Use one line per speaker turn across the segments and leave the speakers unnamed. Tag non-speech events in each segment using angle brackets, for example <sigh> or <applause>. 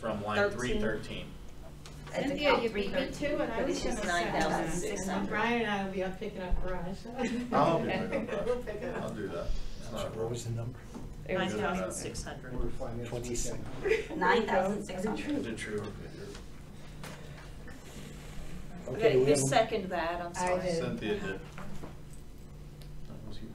from line three
Thirteen.
thirteen.
At the
Cynthia,
top,
you beat me
313,
too, and I
but
was
it's
gonna
just
say
nine thousand
that.
six
And
hundred.
Brian and I will be up picking up
<laughs>
brush.
Oh,
I'll do that,
We'll pick it
I'll
up.
do that. It's not a
Uh, What was the
problem.
number?
It
Nine
was about
thousand six hundred.
We were flying this
Twenty-six.
weekend.
Nine thousand six hundred.
Is it true?
Okay,
Okay,
we
who
have a-
seconded that? I'm
I
sorry.
did.
Cynthia did. That was huge.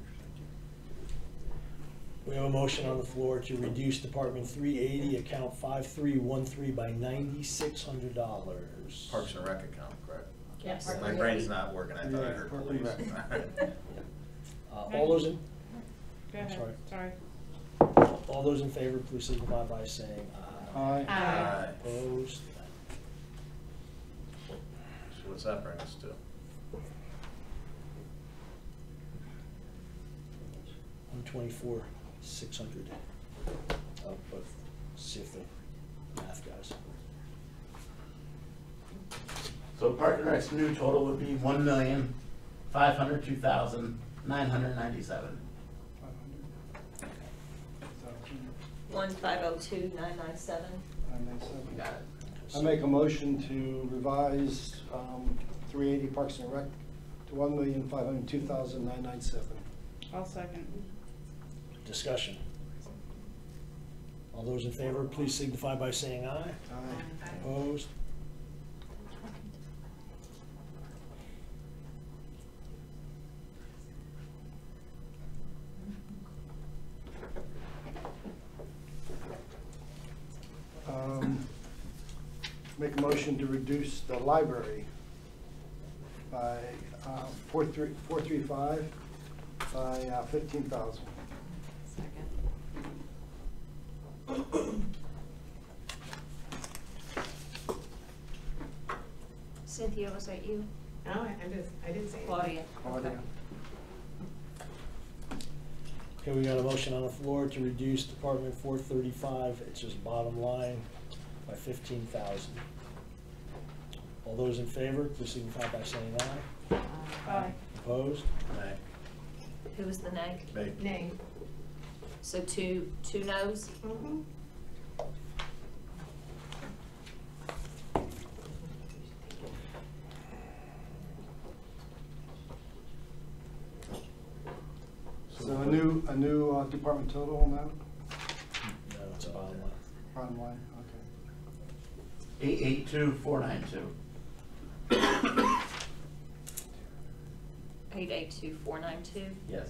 We have a motion on the floor to reduce Department three eighty, account five three one three by ninety-six hundred dollars.
Parks and Rec account, correct?
Yes.
My brain's not working, I thought I
Yeah,
heard
Parks and
police.
Rec.
Uh, all those in,
Go ahead,
Sorry.
sorry.
all those in favor, please signify by saying aye.
Aye.
Aye.
Aye.
Opposed?
<laughs> So what's that bring us to?
One twenty-four, six hundred. Up, but see if the math guys.
So Park and Rec's new total would be one million, five hundred two thousand, nine hundred ninety-seven.
500.
One five oh two nine nine seven.
I make seven.
Got it.
I make a motion to revise um, 380 Parks and Rec to 1,502,997.
I'll second.
Discussion. All those in favor, please signify by saying aye.
Aye.
Opposed?
Um, Make a motion to reduce the library by uh, 43 435 by uh, 15,000.
Cynthia, was that you?
No, I I just, I didn't say anything.
Claudia.
Claudia.
Okay, we got a motion on the floor to reduce Department four thirty-five, it's just bottom line, by fifteen thousand. All those in favor, please signify by saying
Uh,
aye.
Aye.
Opposed?
Nay,
Who was the nay?
nay.
Nay.
So two, two noes?
Mhm.
So a new, a new uh, department total on that,
No, it's bottom line.
bottom line, okay.
Eight eight two, four nine two.
Eight eight two four nine two?
Yes.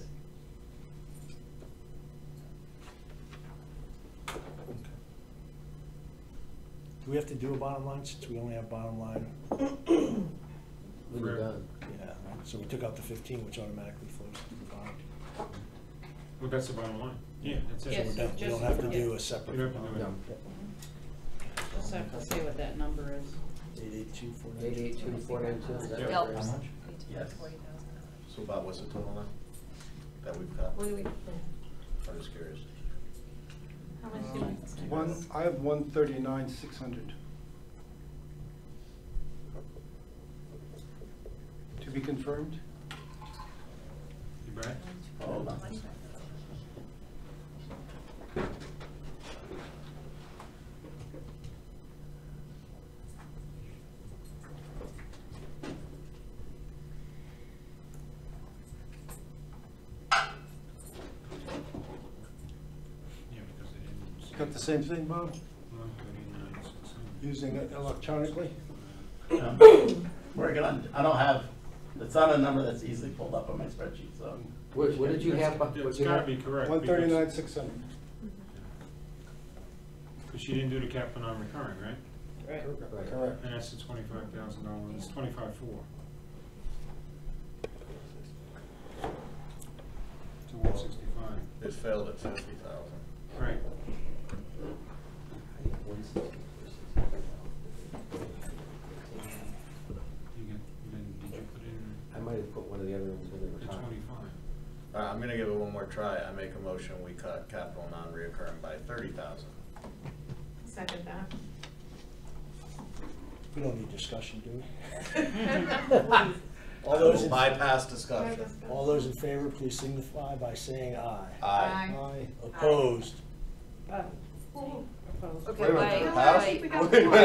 Do we have to do a bottom line since we only have bottom line?
We're
done.
Yeah, so we took out the fifteen, which automatically flows to the bottom.
Well, that's the bottom line. Yeah, that's
So we're
it.
Yes.
done, we don't have to do a separate.
You don't have to do it.
Just have to see what that number is.
Eight eight two four nine.
Eight eight two four nine two, is that
Yep.
right?
Dollars.
Yes.
So Bob, what's the total now? That we've got?
What do we,
I'm just curious.
how much do
Um,
we?
One, I have 139, 600. To be confirmed?
You back?
Hold on.
Yeah, because they didn't.
Got the same thing, Bob?
One thirty-nine, six hundred.
Using it electronically?
Um, Working on, I don't have, it's not a number that's easily pulled up on my spreadsheet, so.
What, what did you have? bu-
It's
what you
gotta
have?
be correct.
One thirty-nine, six hundred.
Because she didn't do the cap for non-recurring, right?
Right.
Correct.
And that's the twenty-five thousand dollars, it's twenty-five four. To one sixty-five,
It failed at fifty thousand.
right. You get, then did you put in
I might have put one of the other ones when they
the
were talking.
twenty-five?
All right, I'm gonna give it one more try. I make a motion, we cut capital non-reoccurring by thirty thousand.
Second
We don't need discussion, do we?
<laughs>
<laughs>
that.
All those,
We'll
in-
Bypass discussion.
all those in favor, please signify by saying aye.
Aye.
Aye.
Opposed?
Uh, proposed.
Okay, wait,
No,
wait.
I think we got
Wait, wait.